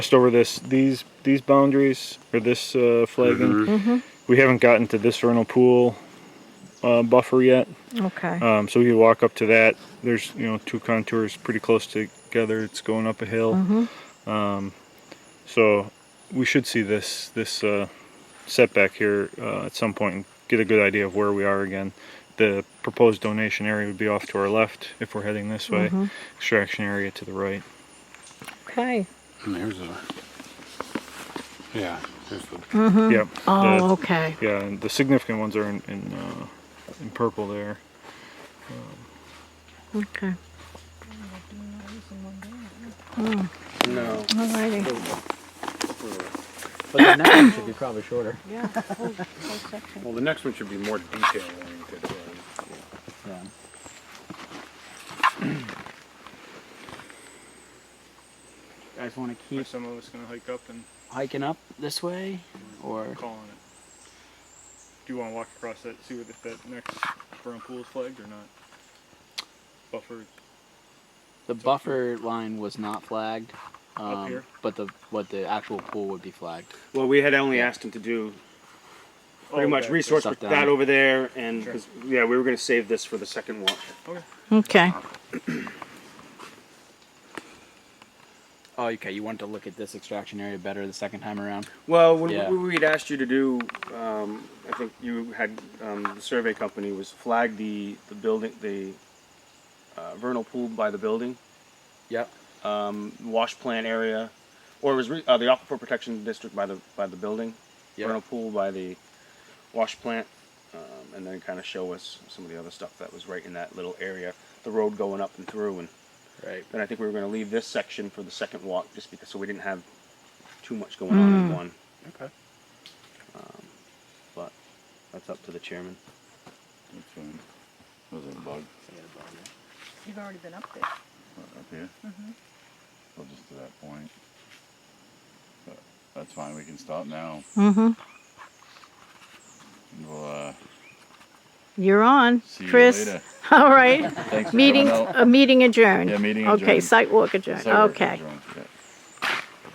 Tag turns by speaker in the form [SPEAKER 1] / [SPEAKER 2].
[SPEAKER 1] Just over this, these these boundaries or this uh, flagging.
[SPEAKER 2] Mm-hmm.
[SPEAKER 1] We haven't gotten to this vernal pool uh, buffer yet,
[SPEAKER 2] Okay.
[SPEAKER 3] Oh,
[SPEAKER 1] um, so we could walk up to that. There's you know two contours pretty close together. It's going up a hill, um,
[SPEAKER 2] Mm-hmm.
[SPEAKER 1] so we should see this this uh, setback here uh, at some point and get a good idea of where we are again. The proposed donation area would be off to our left if we're heading this way.
[SPEAKER 2] Mm-hmm.
[SPEAKER 1] Extraction area to the right.
[SPEAKER 2] okay.
[SPEAKER 3] And here's a. Yeah. Here's the,
[SPEAKER 1] Yep.
[SPEAKER 2] Oh,
[SPEAKER 1] The-
[SPEAKER 2] okay.
[SPEAKER 1] Yeah, and the significant ones are in in, uh, in purple there.
[SPEAKER 2] Okay.
[SPEAKER 3] No.
[SPEAKER 2] Alrighty.
[SPEAKER 4] But the next one should be probably shorter.
[SPEAKER 2] Yeah.
[SPEAKER 3] Well, the next one should be more detail oriented.
[SPEAKER 4] Yeah. Guys want to keep
[SPEAKER 1] some of us gonna hike up and
[SPEAKER 4] hiking up this way, or
[SPEAKER 1] call on it. Do you want to walk across that, see what if that next burn pool is flagged or not? Buffer.
[SPEAKER 4] the buffer line was not flagged, um,
[SPEAKER 1] here?
[SPEAKER 4] but the what the actual pool would be flagged.
[SPEAKER 5] Well, we had only asked him to do
[SPEAKER 3] Oh,
[SPEAKER 5] pretty much resource
[SPEAKER 4] Stuff
[SPEAKER 5] with
[SPEAKER 4] down.
[SPEAKER 5] that over there, and
[SPEAKER 1] Sure.
[SPEAKER 5] 'cause, yeah, we were going to save this for the second walk.
[SPEAKER 2] Okay.
[SPEAKER 4] Oh, okay. You wanted to look at this extraction area better the second time around.
[SPEAKER 5] Well, when
[SPEAKER 4] Yeah.
[SPEAKER 5] we we'd asked you to do, um, I think you had um, the survey company was flag the the building the uh, vernal pool by the building,
[SPEAKER 4] Yep.
[SPEAKER 5] wash plant area, or it was re- uh, the aquifer protection district by the by the building,
[SPEAKER 4] Yeah.
[SPEAKER 5] vernal pool by the wash plant, um, and then kind of show us some of the other stuff that was right in that little area, the road going up and through and.
[SPEAKER 4] Right.
[SPEAKER 5] And I think we were going to leave this section for the second walk, just because so we didn't have too much going on in one.
[SPEAKER 3] Okay.
[SPEAKER 5] But that's up to the chairman.
[SPEAKER 6] Which one? Was it a bug
[SPEAKER 7] You've already been up there.
[SPEAKER 6] up here?
[SPEAKER 4] Mm-hmm.
[SPEAKER 6] Well, just to that point. But that's fine, we can stop now.
[SPEAKER 2] Mm-hmm.
[SPEAKER 6] And We'll, uh,
[SPEAKER 2] You're on,
[SPEAKER 6] see you
[SPEAKER 2] Chris.
[SPEAKER 6] later.
[SPEAKER 2] All right.
[SPEAKER 6] Thanks for coming
[SPEAKER 2] Meeting.
[SPEAKER 6] out.
[SPEAKER 2] A meeting adjourned.
[SPEAKER 6] Yeah, meeting
[SPEAKER 2] Okay.
[SPEAKER 6] adjourned.
[SPEAKER 2] Site walk adjourned.
[SPEAKER 6] Sorry,
[SPEAKER 2] okay.
[SPEAKER 6] everyone. Yeah.